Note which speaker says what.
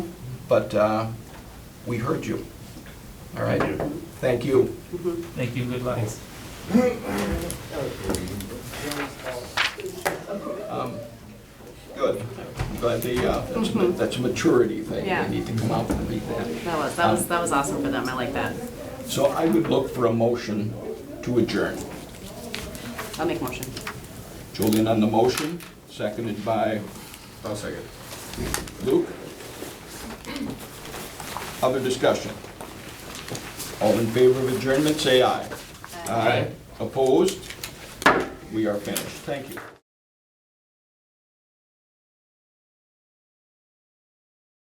Speaker 1: but uh, we heard you. All right?
Speaker 2: Thank you.
Speaker 1: Thank you.
Speaker 3: Thank you, good luck.
Speaker 1: Um, Good. But the, uh, that's ma- that's a maturity thing.
Speaker 4: Yeah.
Speaker 1: They need to come out and meet that.
Speaker 4: That was, that was, that was awesome for them, I like that.
Speaker 1: So I would look for a motion to adjourn.
Speaker 4: I'll make motion.
Speaker 1: Julian on the motion, seconded by
Speaker 2: I'll second.
Speaker 1: Luke. Other discussion? All in favor of adjournment, say aye. Aye. Opposed? We are finished. Thank you.